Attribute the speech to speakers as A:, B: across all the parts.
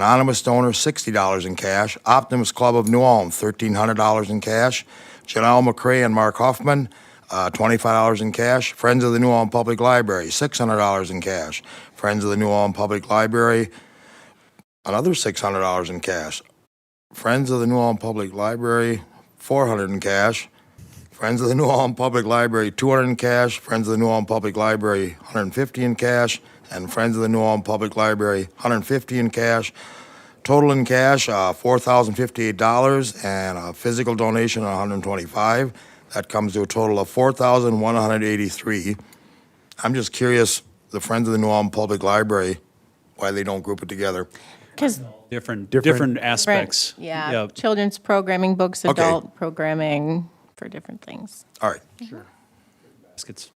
A: Anonymous donor, $60 in cash. Optimus Club of New Ulm, $1,300 in cash. Janelle McCray and Mark Hoffman, uh, $25 in cash. Friends of the New Ulm Public Library, $600 in cash. Friends of the New Ulm Public Library, another $600 in cash. Friends of the New Ulm Public Library, 400 in cash. Friends of the New Ulm Public Library, 200 in cash. Friends of the New Ulm Public Library, 150 in cash. And Friends of the New Ulm Public Library, 150 in cash. Total in cash, uh, $4,058 and a physical donation of 125. That comes to a total of 4,183. I'm just curious, the Friends of the New Ulm Public Library, why they don't group it together.
B: Because,
C: Different, different aspects.
B: yeah, children's programming, books,
A: Okay.
B: adult programming for different things.
A: All right,
C: Baskets.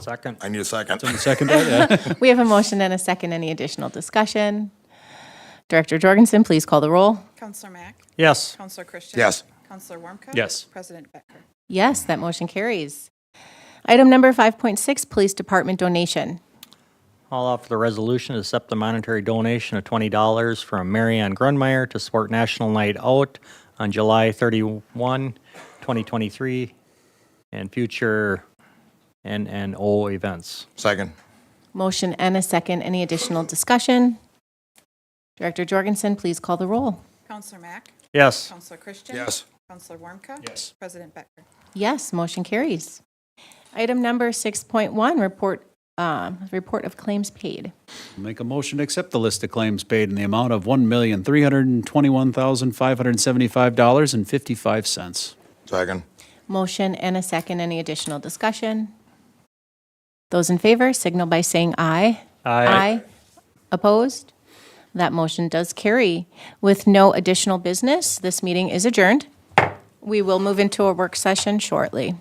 D: Second.
A: I need a second.
C: On the second ballot, yeah.
B: We have a motion and a second. Any additional discussion? Director Jorgensen, please call the roll.
E: Counselor Mack?
D: Yes.
E: Counselor Christian?
A: Yes.
E: Counselor Warmka?
C: Yes.
E: President Becker?
B: Yes, that motion carries. Item number 5.6, Police Department donation.
D: I'll offer the resolution to accept the monetary donation of $20 from Marianne Grunmeyer to support National Night Out on July 31, 2023, and future NNO events.
A: Second.
B: Motion and a second. Any additional discussion? Director Jorgensen, please call the roll.
E: Counselor Mack?
D: Yes.
E: Counselor Christian?
A: Yes.
E: Counselor Warmka?
C: Yes.
E: President Becker?
B: Yes, motion carries. Item number 6.1, report, um, report of claims paid.
C: Make a motion to accept the list of claims paid in the amount of one million, three hundred and twenty-one thousand, five hundred and seventy-five dollars and fifty-five cents.
A: Second.
B: Motion and a second. Any additional discussion? Those in favor signal by saying aye. Opposed? That motion does carry. With no additional business, this meeting is adjourned. We will move into a work session shortly.